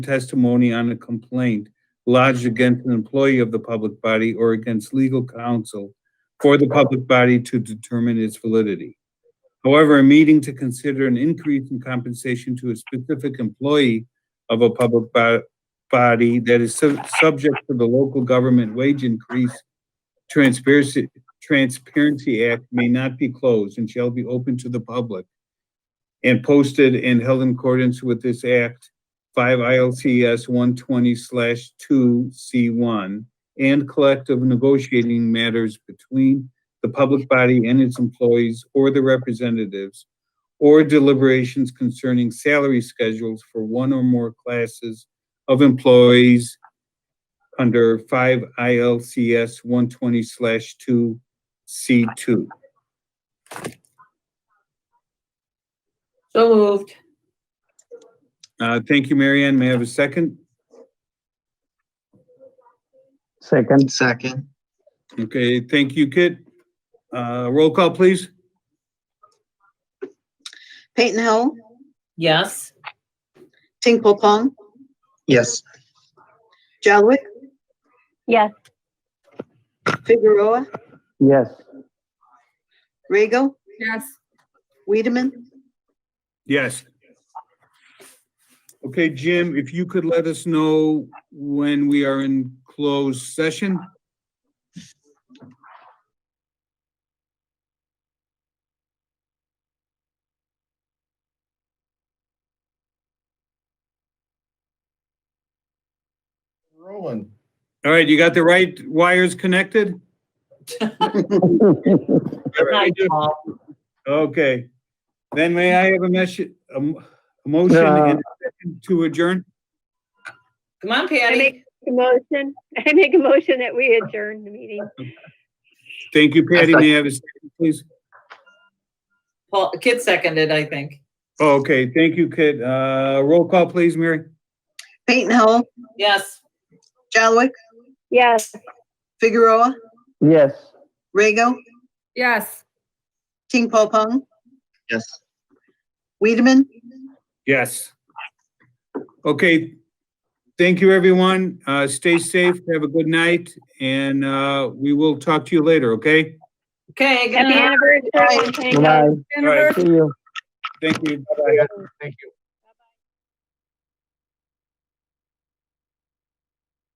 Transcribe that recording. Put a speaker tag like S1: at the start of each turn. S1: testimony on a complaint lodged against an employee of the public body or against legal counsel for the public body to determine its validity. However, a meeting to consider an increase in compensation to a specific employee of a public bo- body that is sub- subject to the local government wage increase transparency, Transparency Act may not be closed and shall be open to the public and posted and held in accordance with this act five ILCS one twenty slash two C one and collective negotiating matters between the public body and its employees or the representatives or deliberations concerning salary schedules for one or more classes of employees under five ILCS one twenty slash two C two.
S2: So moved.
S1: Uh, thank you, Marianne. May I have a second?
S3: Second,
S4: Second,
S1: Okay, thank you, Kit. Uh, roll call, please.
S5: Peyton Hill,
S2: Yes.
S5: Tinkle Pong,
S4: yes,
S5: Jelwick.
S6: Yes.
S5: Figueroa,
S3: yes,
S5: Rego,
S2: Yes.
S5: Wiedemann,
S1: Yes. Okay, Jim, if you could let us know when we are in closed session?
S7: Rolling.
S1: All right, you got the right wires connected?
S2: Night, Paul.
S1: Okay. Then may I have a message, a m- a motion and a second to adjourn?
S2: Come on,
S6: I
S2: Patty.
S6: make a motion, I make a motion that we adjourn the meeting.
S1: Thank you, Patty. May I have a second, please?
S2: Paul, Kit seconded, I think.
S1: Okay, thank you, Kit. Uh, roll call, please, Mary?
S5: Peyton Hill,
S2: Yes.
S5: Jelwick,
S6: Yes.
S5: Figueroa,
S3: yes.
S5: Rego,
S2: Yes.
S5: Tinkle Pong,
S4: yes.
S5: Wiedemann,
S1: Yes. Okay. Thank you, everyone. Uh, stay safe, have a good night, and, uh, we will talk to you later, okay?
S2: Okay. good
S6: Happy
S2: night.
S6: anniversary. Thank you.
S3: Good night.
S1: All right,
S3: See you.
S1: thank you. Bye-bye.
S7: Thank you.